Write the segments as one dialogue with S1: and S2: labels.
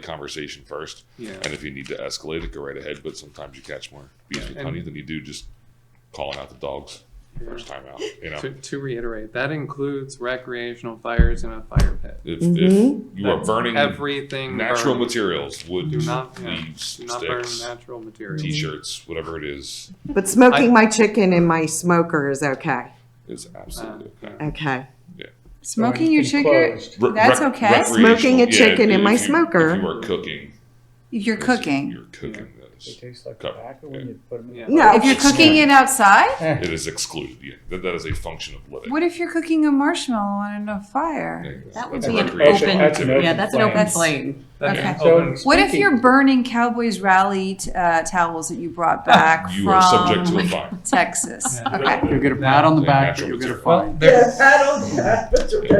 S1: the conversation first.
S2: Yeah.
S1: And if you need to escalate it, go right ahead. But sometimes you catch more bees
S2: Yeah.
S1: with honey than you do just calling out the dogs first time out. You know,
S2: To, to reiterate, that includes recreational fires in a fire pit.
S1: if,
S3: Mhm.
S1: if you are
S2: That's
S1: burning
S2: everything.
S1: natural
S2: burned.
S1: materials, wood,
S2: Do not, yeah,
S1: leaves,
S2: do not burn
S1: sticks,
S2: natural materials.
S1: t-shirts, whatever it is,
S3: But smoking
S2: I-
S3: my chicken in my smoker is okay.
S1: is
S2: Uh,
S1: absolutely okay.
S3: Okay.
S4: Smoking your chicken,
S5: Enclosed.
S1: Re-
S4: That's
S1: rec-
S4: okay.
S1: recreational-
S3: Smoking a
S1: yeah,
S3: chicken
S1: if
S3: in my
S1: you-
S3: smoker.
S1: If you are cooking,
S4: you're
S1: this is-
S4: cooking.
S1: You're cooking this.
S5: They taste like
S1: Cup,
S5: tobacco
S1: yeah.
S5: when you put them in.
S2: Yeah.
S3: No.
S4: If you're cooking it outside,
S1: It is excluded. Yeah, that, that is a function of living.
S4: what if you're cooking a marshmallow on a fire?
S1: Yeah,
S6: That would
S1: that's
S6: be
S1: a
S6: an
S1: recreational
S5: open-
S1: activity.
S5: Open
S6: Yeah, that's an open
S4: flames.
S6: flame.
S2: That's
S4: Okay.
S2: an
S5: So-
S2: open-
S4: What if you're
S5: Speaking-
S4: burning Cowboys rally t- uh, towels that you brought back
S1: Ah, You are subject to a
S4: from
S1: fine.
S4: Texas? Okay.
S7: You'll get a pat on the
S1: Yeah,
S7: back,
S1: natural
S7: but you'll get a
S1: material.
S7: fine.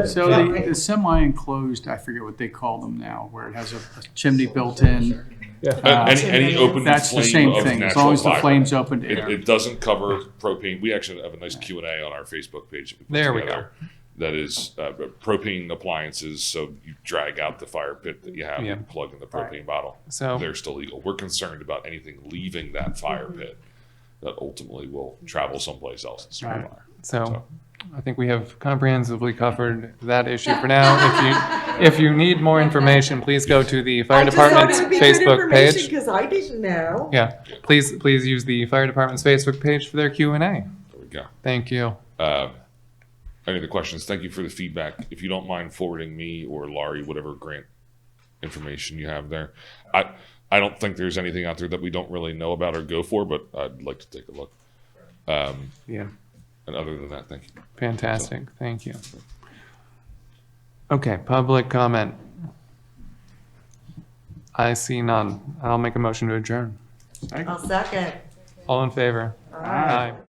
S7: So
S1: Yeah.
S7: the, the semi-enclosed, I forget what they call them now, where it has a a chimney built in.
S1: Uh, any, any open
S7: That's
S1: flame
S7: the same
S1: of
S7: thing, as
S1: natural
S7: long as the
S1: fire.
S7: flame's open to
S1: It,
S7: air.
S1: it doesn't cover propane. We actually have a nice Q and A on our Facebook page. That we put
S2: There we
S1: together That is uh, propane appliances. So you drag out the fire pit that you have
S2: Yeah.
S1: and plug in the propane bottle.
S7: Oh.
S2: So
S1: They're still legal. We're concerned about anything leaving that fire
S7: Mm-hmm.
S1: pit that ultimately will travel someplace else and start a
S7: Right.
S1: fire.
S2: So I think we have comprehensively covered that issue for now. If you, if you need more information, please go to the fire department's Facebook page.
S3: Because I didn't know.
S2: Yeah, please, please use the fire department's Facebook page for their Q and A.
S1: There we go.
S2: Thank you.
S1: Um, any other questions? Thank you for the feedback. If you don't mind forwarding me or Laurie whatever grant information you have there, I I don't think there's anything out there that we don't really know about or go for, but I'd like to take a look. Um,
S2: Yeah.
S1: and other than that, thank you.
S2: Fantastic, thank you. Okay, public comment. I see none. I'll make a motion to adjourn.
S3: I'll second.
S2: All in favor? Aye.